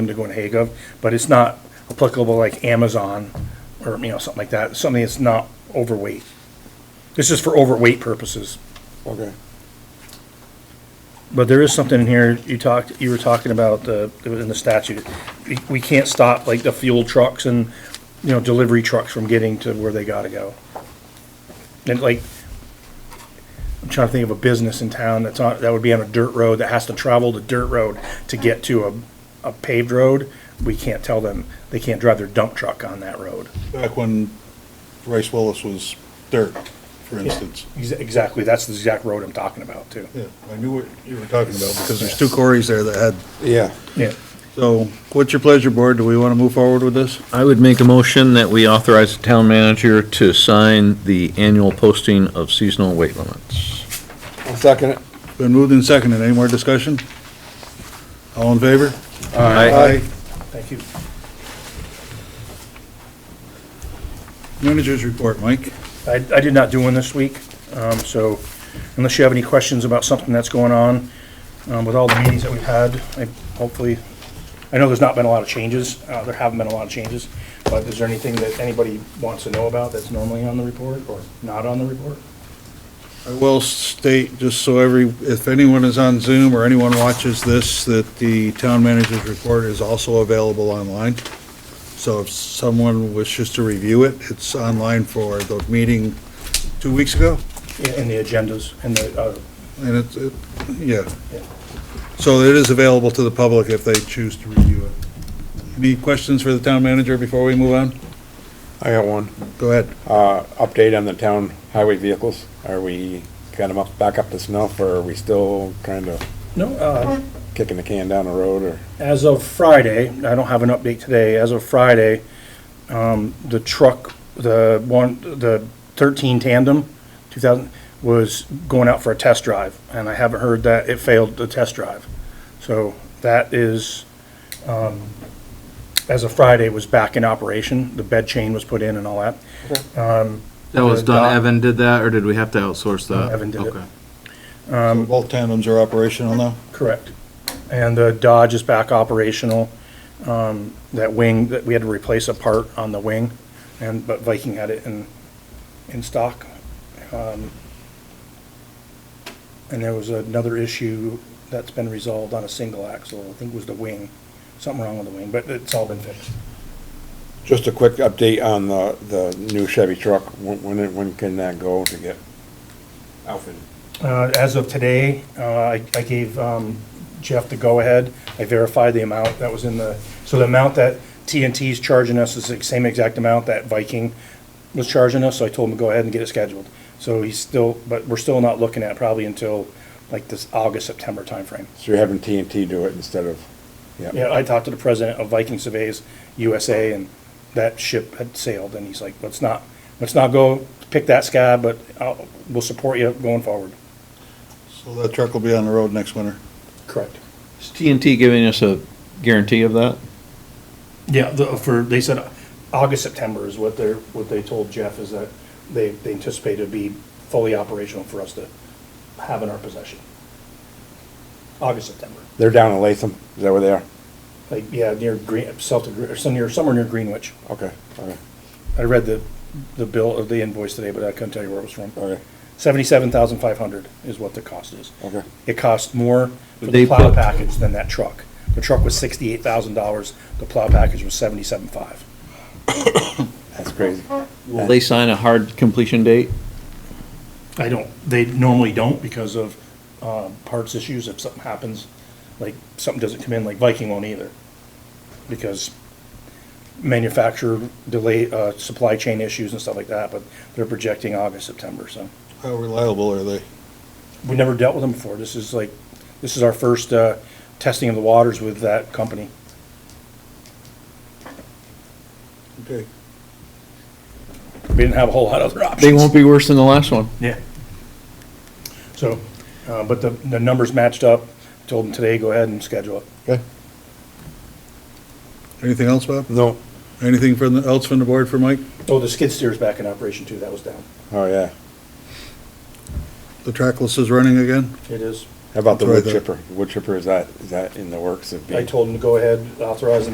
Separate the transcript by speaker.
Speaker 1: to go in Hague of, but it's not applicable like Amazon or, you know, something like that, something that's not overweight. This is for overweight purposes,
Speaker 2: Okay.
Speaker 1: but there is something in here, you talked, you were talking about the, it was in the statute. We- We can't stop like the fuel trucks and, you know, delivery trucks from getting to where they gotta go. And like, I'm trying to think of a business in town that's on, that would be on a dirt road that has to travel the dirt road to get to a, a paved road. We can't tell them, they can't drive their dump truck on that road.
Speaker 2: Back when Rice Willis was dirt, for instance.
Speaker 1: Ex- Exactly, that's the exact road I'm talking about too.
Speaker 2: Yeah, I knew what you were talking about because there's two quarries there that had. Yeah.
Speaker 1: Yeah,
Speaker 2: So what's your pleasure, board? Do we want to move forward with this?
Speaker 3: I would make a motion that we authorize the town manager to sign the annual posting of seasonal weight limits.
Speaker 4: I'll second it.
Speaker 2: Been moved and seconded. Any more discussion? All in favor?
Speaker 3: I
Speaker 1: thank you.
Speaker 2: Managers report, Mike.
Speaker 1: I, I did not do one this week, um, so unless you have any questions about something that's going on, um, with all the meetings that we've had, I hopefully, I know there's not been a lot of changes, uh, there haven't been a lot of changes, but is there anything that anybody wants to know about that's normally on the report or not on the report?
Speaker 2: I will state, just so every, if anyone is on Zoom or anyone watches this, that the town manager's report is also available online. So if someone wishes to review it, it's online for the meeting two weeks ago,
Speaker 1: In, in the agendas, in the, uh,
Speaker 2: and it's, it- yeah.
Speaker 1: Yeah.
Speaker 2: So it is available to the public if they choose to review it. Any questions for the town manager before we move on?
Speaker 4: I got one.
Speaker 2: Go ahead.
Speaker 4: Uh, update on the town highway vehicles. Are we got them up, back up to snuff or are we still kind of
Speaker 1: no, uh,
Speaker 4: kicking the can down the road or?
Speaker 1: As of Friday, I don't have an update today, as of Friday, um, the truck, the one, the thirteen tandem, two thousand, was going out for a test drive, and I haven't heard that it failed the test drive. So that is, um, as of Friday, was back in operation, the bed chain was put in and all that.
Speaker 5: That was
Speaker 1: Doc-
Speaker 5: done, Evan did that, or did we have to outsource that?
Speaker 1: Evan did it.
Speaker 5: Okay.
Speaker 2: So Both tandems are operational now?
Speaker 1: Correct. And the Dodge is back operational. Um, That wing, that we had to replace a part on the wing, and, but Viking had it in, in stock. Um, And there was another issue that's been resolved on a single axle, I think it was the wing, something wrong with the wing, but it's all been fixed.
Speaker 4: Just a quick update on the, the new Chevy truck. When, when, it- when can that go to get outfitted?
Speaker 1: Uh, As of today, uh, I I gave um, Jeff the go-ahead. I verified the amount that was in the, so the amount that TNT is charging us is the same exact amount that Viking was charging us, so I told him to go ahead and get it scheduled. So he's still, but we're still not looking at probably until like this August, September timeframe.
Speaker 4: So you're having TNT do it instead of, yeah.
Speaker 1: Yeah, I talked to the president of Viking Surveys USA, and that ship had sailed, and he's like, let's not, let's not go pick that sky, but I'll- we'll support you going forward.
Speaker 2: So that truck will be on the road next winter.
Speaker 1: Correct.
Speaker 3: Is TNT giving us a guarantee of that?
Speaker 1: Yeah, the, for, they said August, September is what they're, what they told Jeff is that they, they anticipate it'd be fully operational for us to have in our possession. August, September,
Speaker 4: They're down in Latham. Is that where they are?
Speaker 1: like, yeah, near Green, south of, Gre- or some near, somewhere near Greenwich.
Speaker 4: Okay, okay,
Speaker 1: I read the, the bill, or the invoice today, but I couldn't tell you where it was from.
Speaker 4: okay,
Speaker 1: Seventy-seven thousand five hundred is what the cost is.
Speaker 4: okay.
Speaker 1: It cost more for
Speaker 3: They
Speaker 1: the plow
Speaker 3: put-
Speaker 1: package than that truck. The truck was sixty-eight thousand dollars, the plow package was seventy-seven five.
Speaker 4: That's crazy.
Speaker 3: Will they sign a hard completion date?
Speaker 1: I don't, they normally don't because of uh, parts issues, if something happens, like, something doesn't come in, like Viking won't either. Because manufacturer delay, uh, supply chain issues and stuff like that, but they're projecting August, September, so.
Speaker 2: How reliable are they?
Speaker 1: We've never dealt with them before, this is like, this is our first uh, testing of the waters with that company.
Speaker 2: Okay.
Speaker 1: We didn't have a whole lot of other options.
Speaker 3: They won't be worse than the last one.
Speaker 1: Yeah. So, uh, but the, the numbers matched up, told them today, go ahead and schedule it.
Speaker 4: Okay.
Speaker 2: Anything else, Bob?
Speaker 4: No,
Speaker 2: Anything from, the- else from the board for Mike?
Speaker 1: Oh, the skid steer's back in operation too, that was down.
Speaker 4: oh, yeah.
Speaker 2: The trackless is running again?
Speaker 1: It is.
Speaker 4: How about the
Speaker 2: Try
Speaker 4: wood
Speaker 2: that.
Speaker 4: chipper? Wood chipper, is that, is that in the works of being?
Speaker 1: I told him to go ahead, authorize